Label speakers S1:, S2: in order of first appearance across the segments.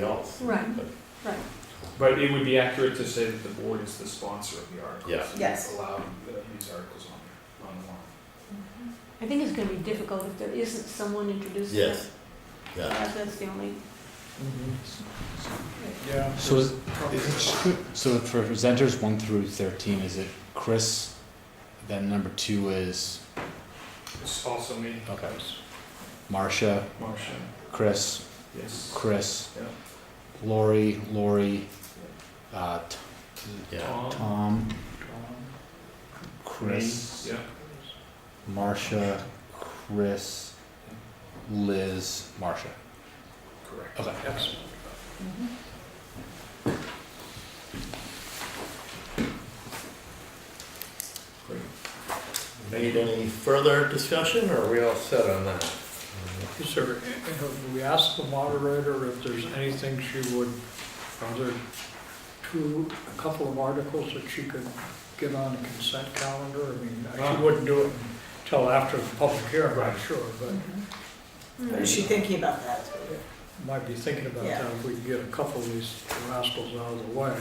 S1: else.
S2: Right,
S1: But-
S2: right.
S3: But it would be accurate to say that the board is the sponsor of the articles.
S1: Yeah.
S3: and
S4: Yes.
S3: Allow the- these articles on, on the warrant.
S2: Mm-hmm. I think it's gonna be difficult if there isn't someone introducing it.
S1: Yes, yeah.
S2: That- That's the only,
S3: Yeah.
S5: So is, is it, so for presenters one through thirteen, is it Chris? Then number two is
S3: It's also me,
S5: okay, Marcia,
S3: Marcia,
S5: Chris,
S3: yes.
S5: Chris,
S3: Yeah.
S5: Lori, Lori, uh, T-
S1: Yeah.
S3: Tom, Tom,
S5: Tom, Chris,
S3: yeah,
S5: Marcia, Chris, Liz, Marcia.
S3: correct.
S5: Okay.
S3: Yes. Great.
S1: Need any further discussion, or are we all set on that?
S6: Is there, have we asked the moderator if there's anything she would, are there two, a couple of articles that she could get on the consent calendar? I mean,
S3: Ah.
S6: she wouldn't do it until after the public hearing, I'm
S3: Right.
S6: sure, but
S4: Or
S2: Mm-hmm.
S4: is she thinking about that?
S6: might be thinking about
S4: Yeah.
S6: that. If we could get a couple of these rascals out of the way.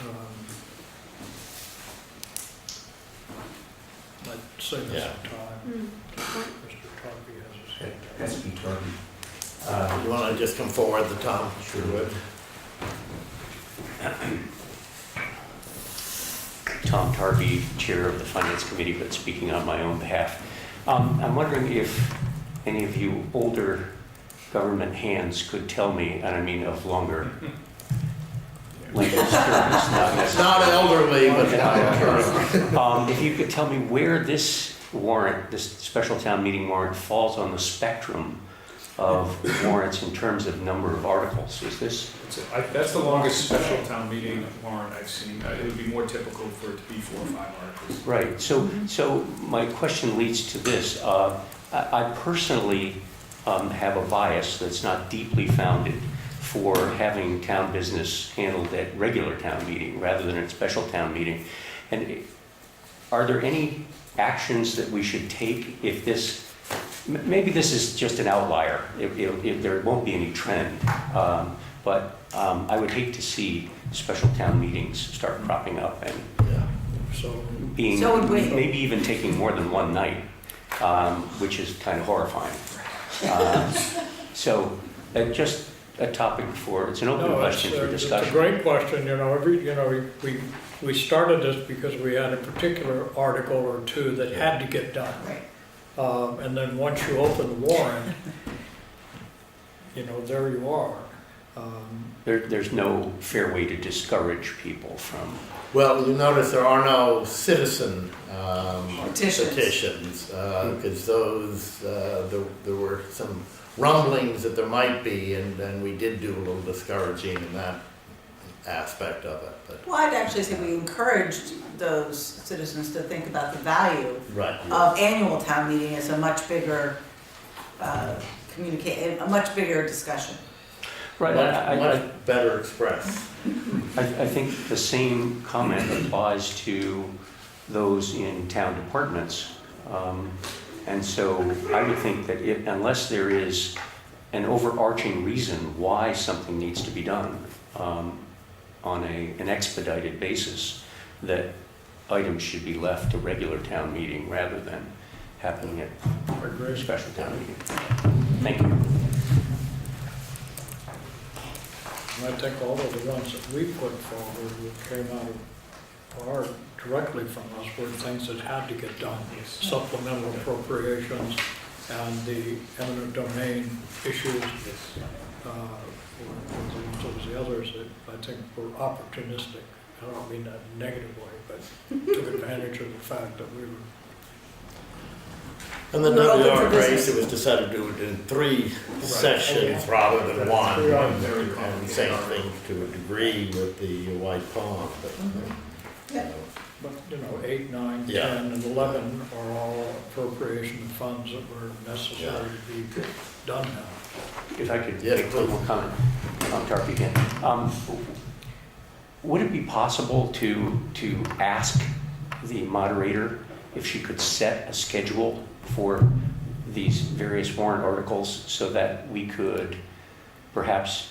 S6: um, I'd say this
S1: Yeah.
S6: time,
S2: mm,
S6: Mr. Tarpey has his hand up.
S7: Has to be turned. Uh,
S1: You wanna just come forward at the top? Sure would.
S7: Tom Tarby, Chair of the Finance Committee, but speaking on my own behalf. Um, I'm wondering if any of you older government hands could tell me, and I mean of longer length of service, not
S1: Uh, It's not elderly, but not
S7: Um, If you could tell me where this warrant, this special town meeting warrant falls on the spectrum of warrants in terms of number of articles. Is this,
S3: That's it. I, that's the longest special town meeting warrant I've seen. Uh, It would be more typical for it to be four or five articles.
S7: right, so, so my question leads to this. Uh, I I personally um, have a bias that's not deeply founded for having town business handled at regular town meeting rather than at special town meeting. And are there any actions that we should take if this, m- maybe this is just an outlier, if, if- if there won't be any trend, um, but um, I would hate to see special town meetings start cropping up and
S1: elderly.
S6: So
S7: being,
S4: So would we.
S7: maybe even taking more than one night, um, which is kind of horrifying. Um, So, uh, just a topic for, it's an open
S6: No, it's,
S7: question
S6: uh,
S7: for
S6: it's
S7: discussion.
S6: a great question, you know, every, you know, we- we, we started this because we had a particular article or two that had to get done.
S4: Right.
S6: Um, and then once you open the warrant, you know, there you are. Um,
S7: There, there's no fair way to discourage people from
S1: Well, you notice there are no citizen um,
S4: Petitions.
S1: petitions, because those, uh, there there were some rumblings that there might be, and then we did do a little discouraging in that aspect of it, but,
S4: Well, I'd actually say we encouraged those citizens to think about the value
S1: right. you're-
S4: of annual town meeting as a much bigger, uh, communicate, a much bigger discussion.
S7: Right, I,
S1: Much,
S7: I- I,
S1: much better expressed.
S7: I I think the same comment applies to those in town departments. Um, And so I would think that it- unless there is an overarching reason why something needs to be done um, on a, an expedited basis, that items should be left to regular town meeting rather than happening at a special town meeting. Thank you.
S6: And I think all of the ones that we put forward that came out of, are directly from us, were things that had to get done.
S3: Yes.
S6: Supplemental appropriations and the eminent domain issues
S3: Yes.
S6: uh, or those the others that I think were opportunistic. I don't mean that negatively, but took advantage of the fact that we were
S1: And the
S4: We're open for
S1: WR race,
S4: business.
S1: it was decided to do it in three sessions rather than one.
S3: Three are very
S1: And
S3: complicated.
S1: same thing to a degree with the White Pond, but.
S4: Yeah.
S1: uh,
S6: But, you know, eight, nine,
S1: Yeah.
S6: ten, and eleven are all appropriation funds that were necessary to be done now.
S7: If I could
S1: Yes,
S7: make one
S1: please.
S7: more comment, Tom Tarpe again. Um, Would it be possible to, to ask the moderator if she could set a schedule for these various warrant articles so that we could perhaps